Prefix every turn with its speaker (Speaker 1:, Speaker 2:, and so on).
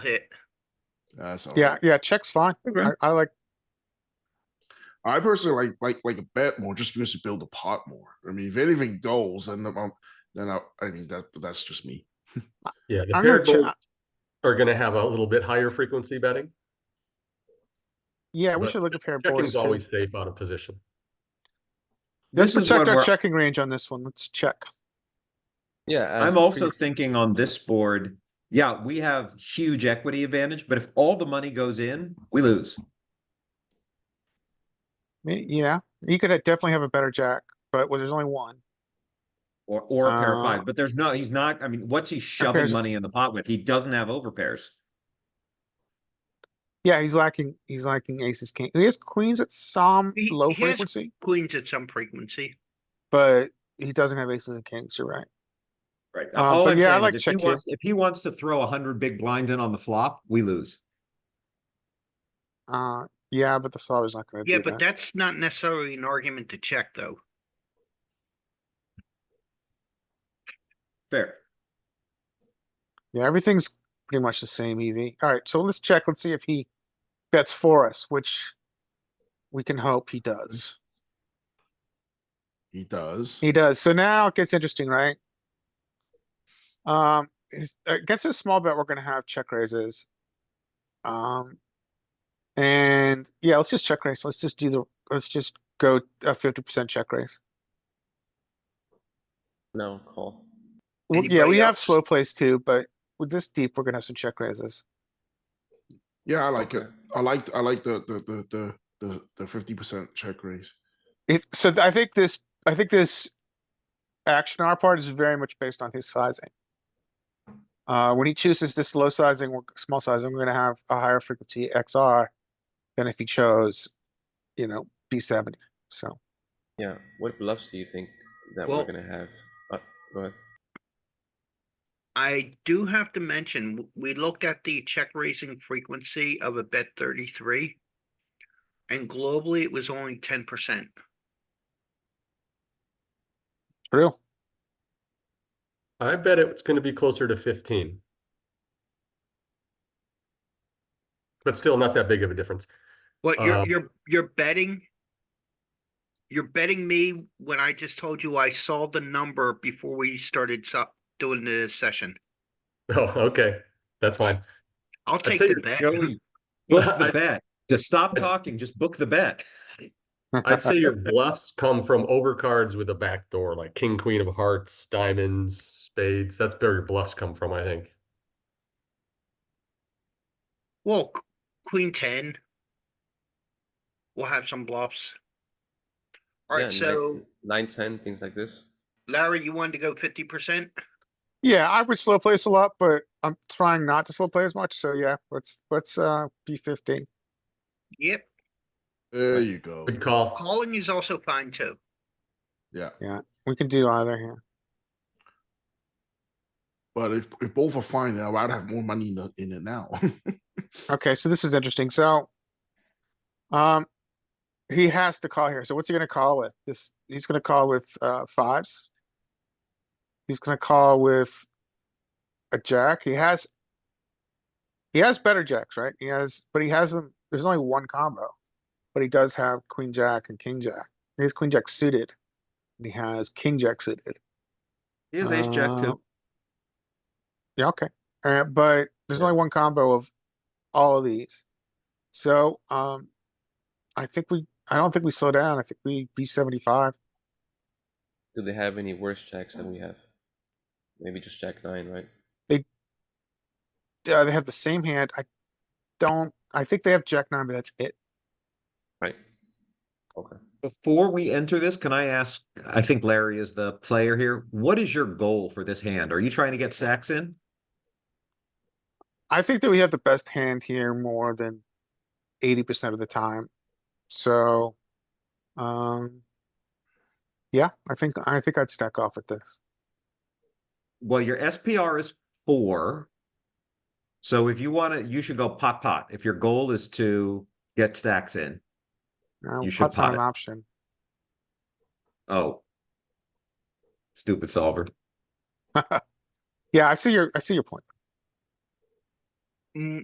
Speaker 1: hit.
Speaker 2: Uh, so
Speaker 3: Yeah, yeah, check's fine. I, I like,
Speaker 2: I personally like like like a bet more just because you build the pot more. I mean, if anything goes, then I'm, then I, I mean that that's just me.
Speaker 4: Yeah, the
Speaker 3: I'm gonna
Speaker 4: paired
Speaker 3: check,
Speaker 4: boats are gonna have a little bit higher frequency betting.
Speaker 3: yeah, we
Speaker 4: but
Speaker 3: should look at paired boards
Speaker 4: Checking's
Speaker 3: too.
Speaker 4: always safe out of position.
Speaker 3: Let's
Speaker 5: This is one
Speaker 3: protect our
Speaker 5: where
Speaker 3: checking range on this one. Let's check.
Speaker 6: Yeah.
Speaker 5: I'm
Speaker 6: as
Speaker 5: also
Speaker 6: pre-
Speaker 5: thinking on this board, yeah, we have huge equity advantage, but if all the money goes in, we lose.
Speaker 3: Y- Yeah, you could ha- definitely have a better jack, but well, there's only one.
Speaker 5: Or, or a pair of
Speaker 3: Uh,
Speaker 5: five, but there's no, he's not, I mean, what's he
Speaker 3: pairs
Speaker 5: shoving
Speaker 3: is-
Speaker 5: money in the pot with? He doesn't have overpairs.
Speaker 3: Yeah, he's lacking, he's lacking aces, king. He has queens at some
Speaker 1: He-
Speaker 3: low
Speaker 1: he has-
Speaker 3: frequency,
Speaker 1: Queens at some frequency.
Speaker 3: but he doesn't have aces and kings, you're right.
Speaker 5: Right.
Speaker 3: Um,
Speaker 5: All
Speaker 3: but
Speaker 5: I'm
Speaker 3: yeah, I
Speaker 5: saying
Speaker 3: like
Speaker 5: is if he
Speaker 3: check here.
Speaker 5: wants, if he wants to throw a hundred big blinds in on the flop, we lose.
Speaker 3: Uh, yeah, but the solver's not gonna
Speaker 1: Yeah,
Speaker 3: do
Speaker 1: but
Speaker 3: that.
Speaker 1: that's not necessarily an argument to check, though.
Speaker 5: Fair.
Speaker 3: Yeah, everything's pretty much the same E EV. Alright, so let's check, let's see if he bets for us, which we can hope he does.
Speaker 2: He does.
Speaker 3: He does. So now it gets interesting, right? Um, his- against a small bet, we're gonna have check raises. Um, and yeah, let's just check raise. Let's just do the, let's just go a fifty percent check raise.
Speaker 6: No, call.
Speaker 3: Well, yeah, we
Speaker 1: Anybody
Speaker 3: have
Speaker 1: else?
Speaker 3: slow plays too, but with this deep, we're gonna have some check raises.
Speaker 2: Yeah, I like it. I like I like the the the the the the fifty percent check raise.
Speaker 3: If, so th- I think this, I think this action on our part is very much based on his sizing. Uh, when he chooses this low sizing or small sizing, we're gonna have a higher frequency XR than if he chose, you know, B seventy, so.
Speaker 6: Yeah. What bluffs do you think that
Speaker 1: Well-
Speaker 6: we're gonna have? Uh, go ahead.
Speaker 1: I do have to mention, w- we looked at the check raising frequency of a bet thirty-three. And globally, it was only ten percent.
Speaker 3: True.
Speaker 4: I bet it's gonna be closer to fifteen. But still not that big of a difference.
Speaker 1: What you're,
Speaker 4: Um,
Speaker 1: you're, you're betting? You're betting me when I just told you I saw the number before we started so- doing the session.
Speaker 4: Oh, okay, that's fine.
Speaker 1: I'll take
Speaker 4: say
Speaker 1: the
Speaker 4: you're
Speaker 1: bet.
Speaker 5: Joey, book the
Speaker 4: I'd-
Speaker 5: bet. Just stop talking, just book the bet.
Speaker 4: I'd say your bluffs come from overcards with a backdoor, like king, queen of hearts, diamonds, spades. That's where your bluffs come from, I think.
Speaker 1: Well, q- queen ten. We'll have some bluffs.
Speaker 6: Yeah,
Speaker 1: Alright,
Speaker 6: nine-
Speaker 1: so
Speaker 6: nine, ten, things like this.
Speaker 1: Larry, you wanted to go fifty percent?
Speaker 3: Yeah, I would slow place a lot, but I'm trying not to slow play as much, so yeah, let's, let's, uh, B fifteen.
Speaker 1: Yep,
Speaker 2: There you go.
Speaker 4: Good call.
Speaker 1: calling is also fine too.
Speaker 2: Yeah,
Speaker 3: We can do either here.
Speaker 2: but if if both are fine, then I'd rather have more money in the, in it now.
Speaker 3: Okay, so this is interesting, so. Um, he has to call here, so what's he gonna call with? This, he's gonna call with, uh, fives. He's gonna call with. A jack, he has. He has better jacks, right? He has, but he has them, there's only one combo. But he does have queen jack and king jack. He has queen jack suited. and He has king jack suited.
Speaker 5: He has ace jack
Speaker 3: Uh,
Speaker 5: too.
Speaker 3: Yeah, okay. Uh, but there's only one combo of all of these. So, um, I think we, I don't think we slow down. I think we B seventy-five.
Speaker 6: Do they have any worse checks than we have? Maybe just jack nine, right?
Speaker 3: Uh, they have the same hand. I don't, I think they have jack nine, but that's it.
Speaker 6: Right. Okay.
Speaker 5: Before we enter this, can I ask, I think Larry is the player here. What is your goal for this hand? Are you trying to get stacks in?
Speaker 3: I think that we have the best hand here more than eighty percent of the time. So, um, yeah, I think, I think I'd stack off with this.
Speaker 5: Well, your SPR is four. So if you wanna, you should go pot pot. If your goal is to get stacks in,
Speaker 3: Uh,
Speaker 5: You should
Speaker 3: Pot's not
Speaker 5: pot
Speaker 3: an
Speaker 5: it.
Speaker 3: option.
Speaker 5: oh. Stupid solver.
Speaker 3: Yeah, I see your, I see your point.
Speaker 1: mm,